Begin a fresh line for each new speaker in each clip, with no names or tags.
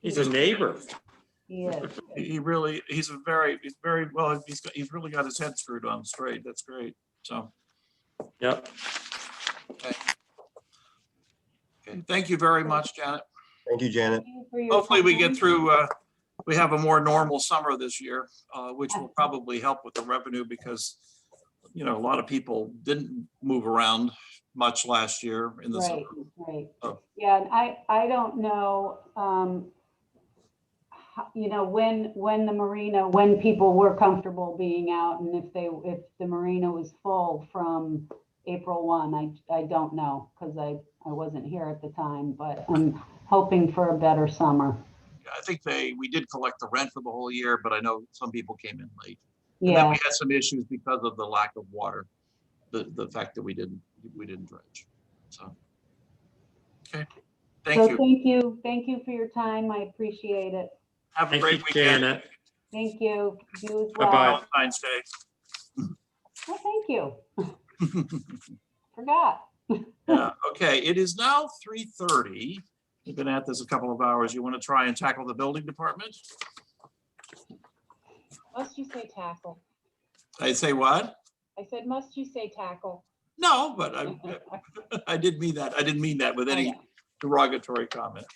He's a neighbor.
Yes.
He he really, he's a very, he's very, well, he's, got- he's really got his head screwed on straight. That's great. So,
Yep.
okay, thank you very much, Janet.
Thank you, Janet.
Hopefully we get through, uh, we have a more normal summer this year, uh, which will probably help with the revenue because, you know, a lot of people didn't move around much last year in the summer.
Right, right.
Oh.
Yeah, and I, I don't know, um, ho- you know, when, when the marina, when people were comfortable being out and if they, if the marina was full from April one, I, I don't know, because I, I wasn't here at the time, but I'm hoping for a better summer.
I think they, we did collect the rent for the whole year, but I know some people came in late. And then we
Yeah,
had some issues because of the lack of water, the, the fact that we didn't, we didn't dredge, so. Okay, thank
so
you.
thank you, thank you for your time. I appreciate it.
Have a
Thank you,
great weekend.
Janet.
Thank you. You as well.
Bye-bye.
Valentine's Day.
Well, thank you. Forgot.
Yeah, okay, it is now three thirty. We've been at this a couple of hours. You want to try and tackle the building department?
Must you say tackle?
I say what?
I said, must you say tackle?
No, but I, I did mean that. I didn't mean that with
Oh,
any derogatory comment.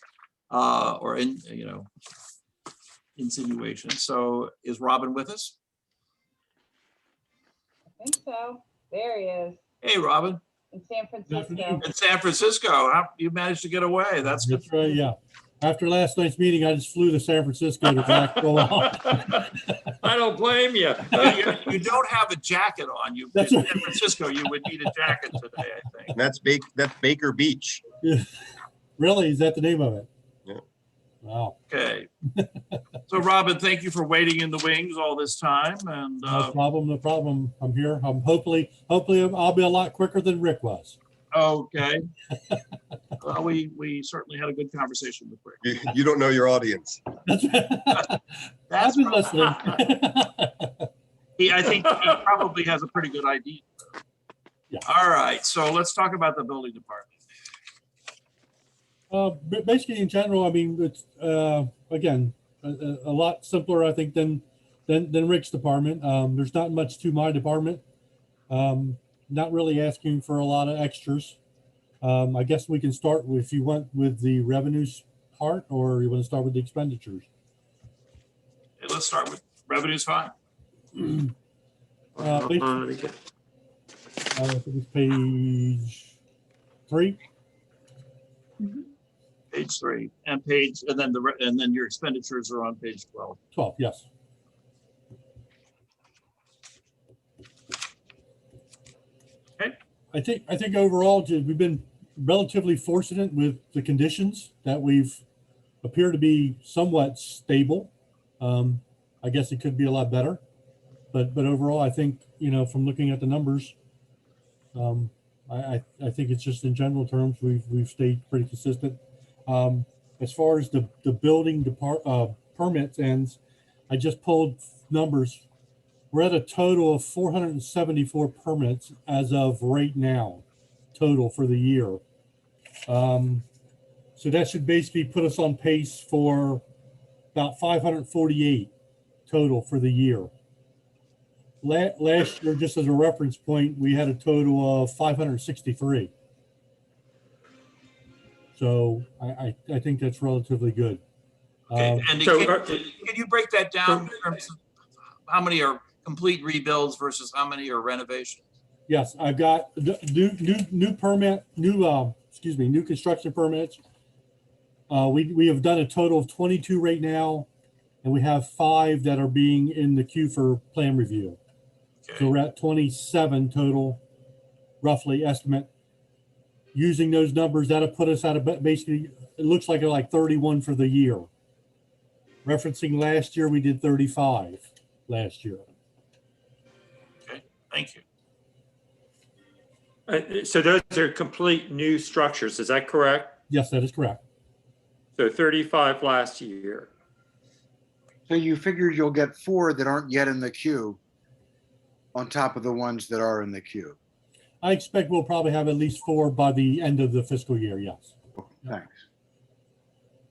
Uh, or in, you know, insinuation. So is Robin with us?
I think so. There he is
Hey, Robin,
in San Francisco.
in San Francisco, how, you managed to get away. That's good.
That's right, yeah. After last night's meeting, I just flew to San Francisco to back roll out.
I don't blame you.
You you don't have a jacket on. You, in
That's
San
right.
Francisco, you would need a jacket today, I think.
That's Baker, that's Baker Beach.
Really? Is that the name of it?
Yeah.
Wow.
Okay. So Robin, thank you for waiting in the wings all this time and,
No
uh,
problem, no problem. I'm here. I'm hopefully, hopefully I'll be a lot quicker than Rick was.
okay. Well, we, we certainly had a good conversation with Rick.
You, you don't know your audience.
That's right. I've
That's,
been
prob-
listening.
he, I think he probably has a pretty good idea.
Yeah.
All right, so let's talk about the building department.
Uh, ba- Basically, in general, I mean, it's, uh, again, a- a a lot simpler, I think, than, than, than Rick's department. Um, There's not much to my department. Um, Not really asking for a lot of extras. Um, I guess we can start, with- if you want, with the revenues part, or you want to start with the expenditures.
Hey, Let's start with revenue's fine.
Uh, please. Uh, I think it's page three.
Page three and page, and then the, re- and then your expenditures are on page 12.
12, yes.
Okay.
I think, I think overall, ju- we've been relatively fortunate with the conditions that we've appear to be somewhat stable. Um, I guess it could be a lot better, but, but overall, I think, you know, from looking at the numbers, um, I, I, I think it's just in general terms, we've, we've stayed pretty consistent. Um, as far as the, the building depart, uh, permits ends, I just pulled numbers. We're at a total of four hundred and seventy-four permits as of right now, total for the year. Um, so that should basically put us on pace for about five hundred and forty-eight total for the year. La- last year, just as a reference point, we had a total of five hundred and sixty-three. So I, I, I think that's relatively good.
Okay,
Um,
and
So,
can
uh,
can you break that down in terms of how many are complete rebuilds versus how many are renovations?
Yes, I've got the new, new, new permit, new, uh, excuse me, new construction permits. Uh, we, we have done a total of twenty-two right now, and we have five that are being in the queue for plan review. So
Okay,
we're at twenty-seven total, roughly estimate. Using those numbers, that'll put us at a, ba- basically, it looks like like thirty-one for the year. Referencing last year, we did thirty-five last year.
thank you.
Uh, So those are complete new structures, is that correct?
Yes, that is correct.
So 35 last year.
So you figure you'll get four that aren't yet in the queue on top of the ones that are in the queue.
I expect we'll probably have at least four by the end of the fiscal year, yes.
Thanks.